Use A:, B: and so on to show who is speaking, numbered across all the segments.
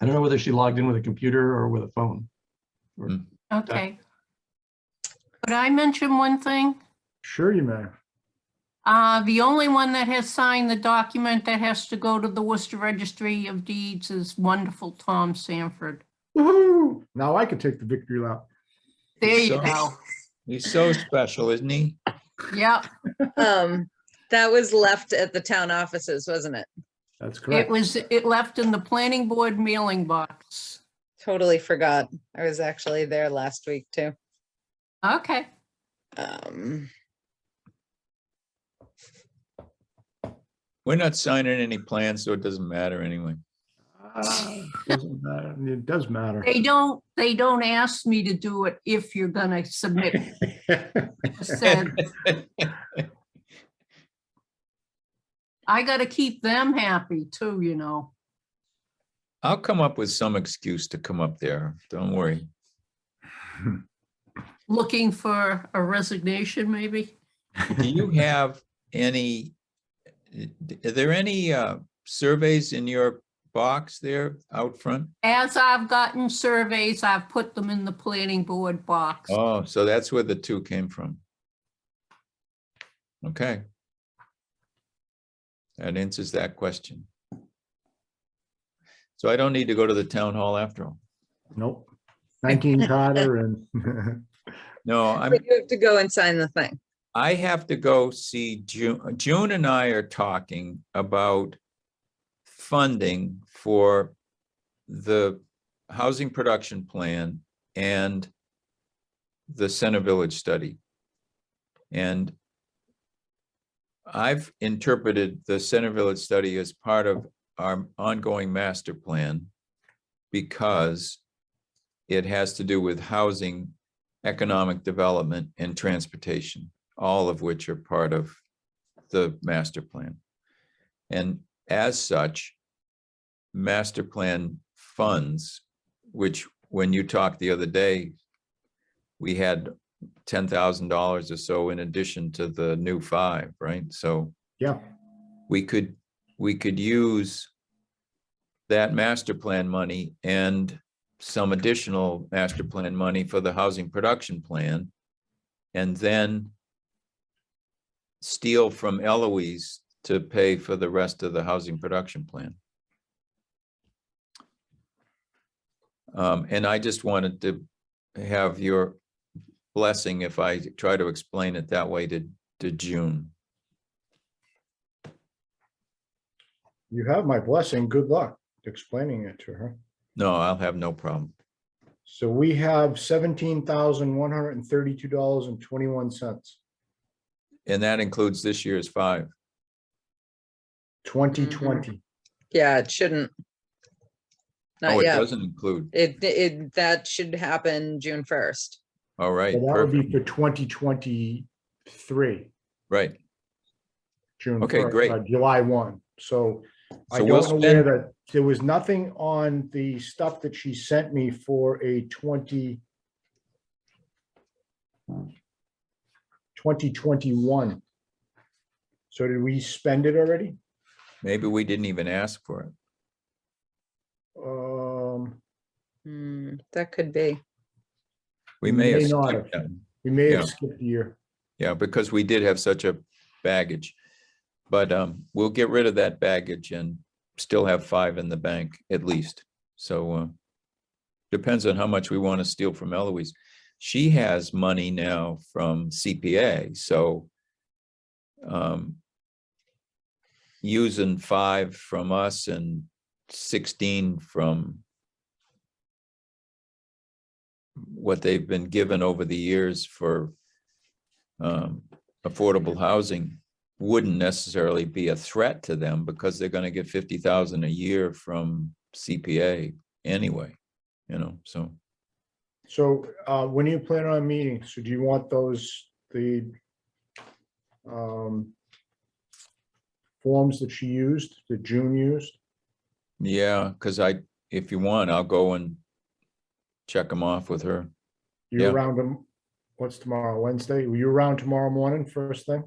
A: I don't know whether she logged in with a computer or with a phone.
B: Okay. Could I mention one thing?
C: Sure you may.
B: Uh, the only one that has signed the document that has to go to the Worcester Registry of Deeds is wonderful Tom Sanford.
C: Woohoo! Now I could take the victory lap.
B: There you
D: So-
B: go.
D: He's so special, isn't he?
B: Yep,
E: Um, that was left at the town offices, wasn't it?
C: That's
B: it
C: correct.
B: was, it left in the planning board mailing box.
E: Totally forgot. I was actually there last week too.
B: Okay,
E: Um,
D: We're not signing any plans, so it doesn't matter anyway.
C: Ah, doesn't matter. It does matter.
B: they don't, they don't ask me to do it if you're gonna submit, said, I gotta keep them happy too, you know.
D: I'll come up with some excuse to come up there. Don't worry.
B: Looking for a resignation, maybe?
D: Do you have any, are there any uh, surveys in your box there out front?
B: As I've gotten surveys, I've put them in the planning board box.
D: Oh, so that's where the two came from. Okay. That answers that question. So I don't need to go to the town hall after all.
C: Nope. Nineteen Carter and
D: No, I'm,
E: but you have to go and sign the thing.
D: I have to go see June. June and I are talking about funding for the housing production plan and the Center Village study. And I've interpreted the Center Village study as part of our ongoing master plan because it has to do with housing, economic development, and transportation all of which are part of the master plan. And as such, master plan funds, which when you talked the other day, we had ten thousand dollars or so in addition to the new five, right? So
C: yeah,
D: we could, we could use that master plan money and some additional master plan money for the housing production plan. And then steal from Eloise to pay for the rest of the housing production plan. Um, and I just wanted to have your blessing if I try to explain it that way to, to June.
C: you have my blessing. Good luck explaining it to her.
D: No, I'll have no problem.
C: So we have seventeen thousand one hundred and thirty-two dollars and twenty-one cents.
D: And that includes this year's five.
C: Twenty twenty.
E: Yeah, it shouldn't.
D: Oh,
E: Not
D: it
E: yet.
D: doesn't include.
E: It, it, that should happen June first.
D: All right,
B: Mm-hmm.
C: That would be
D: perfect.
C: for twenty twenty-three.
D: Right.
C: June.
D: Okay,
C: 1st,
D: great.
C: uh, July one, so I
D: So we'll
C: don't know where
D: spend,
C: that, there was nothing on the stuff that she sent me for a twenty twenty twenty-one. So did we spend it already?
D: maybe we didn't even ask for it.
C: Um,
E: Hmm, that could be.
D: We
C: We
D: may have.
C: may not
D: skipped
C: have.
D: that.
C: we may
D: Yeah.
C: have skipped a year.
D: Yeah, because we did have such a baggage. But um, we'll get rid of that baggage and still have five in the bank at least. So uh, depends on how much we want to steal from Eloise. She has money now from CPA, so um, using five from us and sixteen from what they've been given over the years for um, affordable housing wouldn't necessarily be a threat to them because they're gonna get fifty thousand a year from CPA anyway, you know, so.
C: So, uh, when do you plan on meeting? So do you want those, the um, forms that she used, that June used?
D: Yeah, cause I, if you want, I'll go and check them off with her.
C: You
D: Yeah.
C: around them, what's tomorrow, Wednesday? Were you around tomorrow morning, first thing?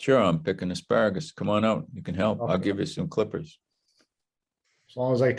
D: Sure, I'm picking asparagus. Come on out. You can help. I'll
C: Okay.
D: give you some clippers.
C: As long as I